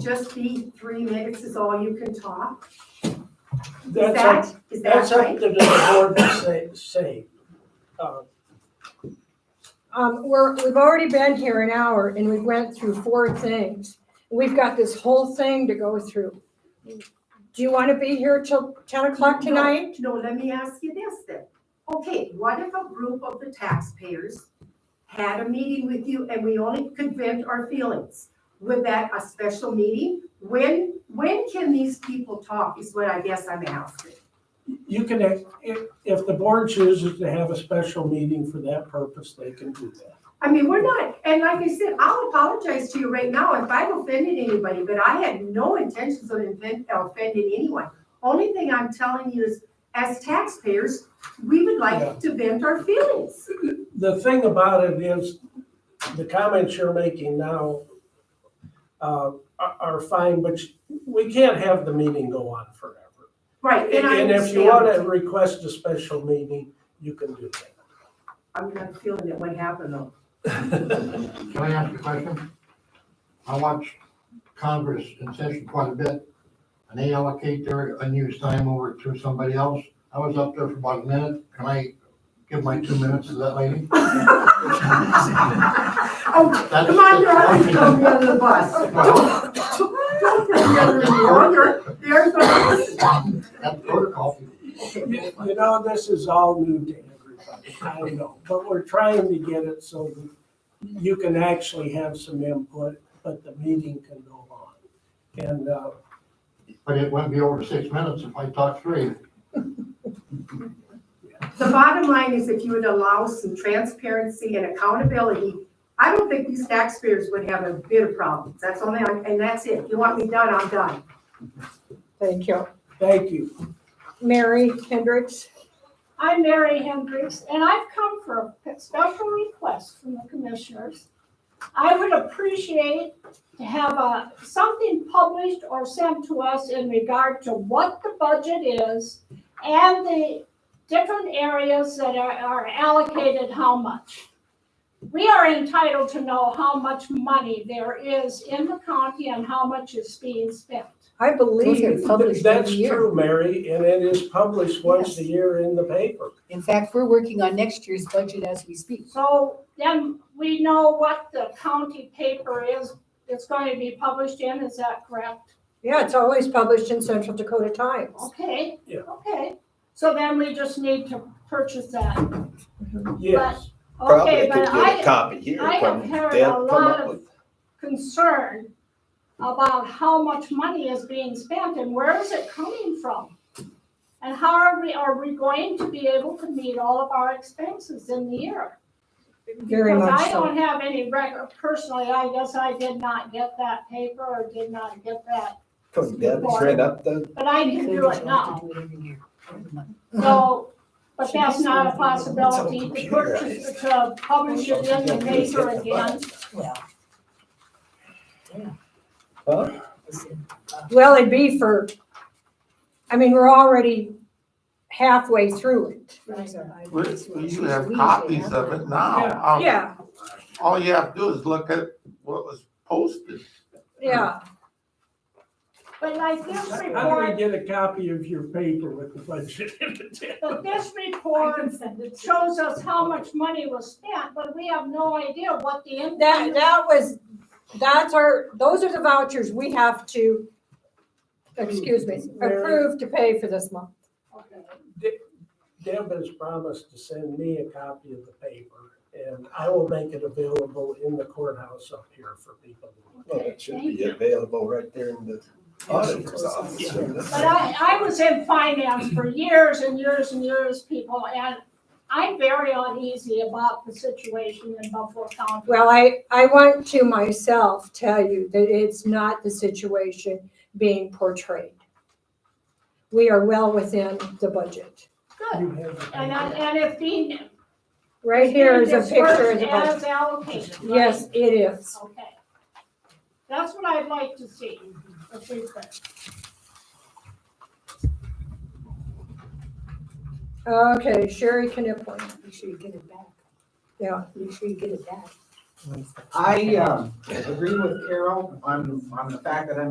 just be three minutes is all you can talk? Is That's up, that, is that that's up right? to the board to say, say. Uh, Um, we're, we've already been here an hour and we went through four things. We've got this whole thing to go through. Do you want to be here till ten o'clock tonight? No, let me ask you this then. Okay, what if a group of the taxpayers had a meeting with you and we only could vent our feelings? Would that a special meeting? When, when can these people talk is what I guess I'm asking. You can, act- if, if the board chooses to have a special meeting for that purpose, they can do that. I mean, we're not, and like I said, I'll apologize to you right now if I've offended anybody, but I had no intentions of offend- offending anyone. Only thing I'm telling you is, as taxpayers, we would Yeah. like to vent our feelings. The thing about it is, the comments you're making now uh, are, are fine, but we can't have the meeting go on forever. Right, and I And if you want to understand. request a special meeting, you can do that. I'm not feeling it, what happened though. Can I ask a question? I watch Congress in session quite a bit, and they allocate their unused time over to somebody else. I was up there for about a minute. Can I give my two minutes to that lady? Oh, That's- come on, you're that's- always throwing me under the bus. Don't throw me under the bus. You're- there's no- That's protocol. You you know, this is all new to everybody, I know, but we're trying to get it so that you can actually have some input, but the meeting can go on. And, uh, But it wouldn't be over six minutes if I talked three. The bottom line is if you would allow some transparency and accountability, I don't think these taxpayers would have a bit of problems. That's only, and that's it. You want me done, I'm done. Thank you. thank you. Mary Hendricks, I'm Mary Hendricks, and I've come for a special request from the commissioners. I would appreciate to have a, something published or sent to us in regard to what the budget is and the different areas that are, are allocated how much. We are entitled to know how much money there is in the county and how much is being spent. I believe it's published That's every year. true, Mary, and it is published once a Yes. year in the paper. In fact, we're working on next year's budget as we speak. So then we know what the county paper is, it's going to be published in, is that correct? Yeah, it's always published in Central Dakota Times. Okay. Yeah. Okay, so then we just need to purchase that. Yes, Probably Okay, could but get a I copy here I have from heard a Deb, come lot up of- with. concern about how much money is being spent and where is it coming from? And how are we, are we going to be able to meet all of our expenses in the year? Very much Because I so. don't have any record, personally, I guess I did not get that paper or did not get that Couldn't Deb print up the, But I can do it now, so, but that's not a possibility to purchase, to publish it in the paper again. huh? Well, it'd be for, I mean, we're already halfway through it. We, we usually have copies of it Yeah. now. Um, Yeah, All you have to do is look at what was posted. yeah. But like this I'm gonna report, get a copy of your paper with the budget in it. but this report shows us how much money was spent, but we have no idea what the That, impact. that was, that's our, those are the vouchers we have to, excuse me, approve to pay for this month. Okay. Deb has promised to send me a copy of the paper, and I will make it available in the courthouse up here for people. Well, it should be available right there in the auditor's office. But I, I was in finance for years and years and years, people, and I'm very uneasy about the situation in Buffalo County. Well, I, I want to myself tell you that it's not the situation being portrayed. We are well within the budget. Good. You have the And, paper. I- and if being Right here is a picture of the As budget. allocated, right? Yes, it is. Okay. That's what I'd like to see, if we could. Okay, Sherry Knipling. Make sure you get it back. Yeah. Make sure you get it back. I, um, agree with Carol on, on the fact that I'm